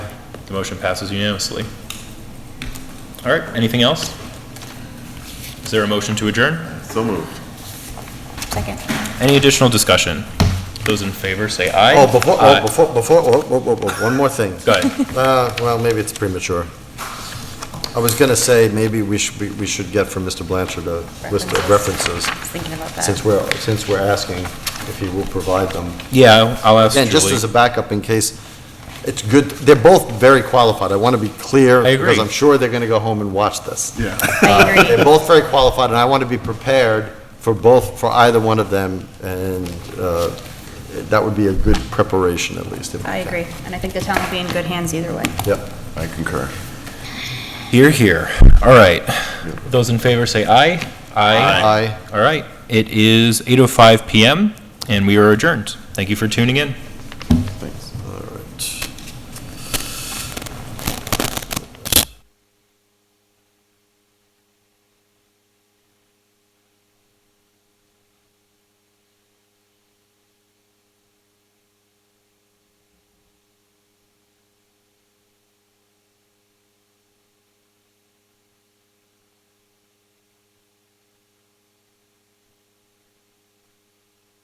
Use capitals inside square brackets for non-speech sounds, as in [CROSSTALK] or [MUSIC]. The motion passes unanimously. All right, anything else? Is there a motion to adjourn? So moved. Second. Any additional discussion? Those in favor say aye. Oh, before, Aye. oh, before, before, oh, oh, oh, oh, one more thing. Go [LAUGHS] ahead. Uh, well, maybe it's premature. I was gonna say, maybe we should, we- we should get from Mr. Blanchard a list of references, I was thinking about that. since we're, since we're asking if he will provide them. Yeah, I'll ask Again, just as Julie. a backup in case, it's good, they're both very qualified, I wanna be clear. I agree. Because I'm sure they're gonna go home and watch this. Yeah. I agree. They're both very qualified, and I want to be prepared for both, for either one of them, and uh, that would be a good preparation, at least. if we I can. agree, and I think the town will be in good hands either way. Yep. I concur. Here, here. All right. Those in favor say aye. Aye. oh All right. It is 8:05 PM and we are adjourned. Thank you for tuning in.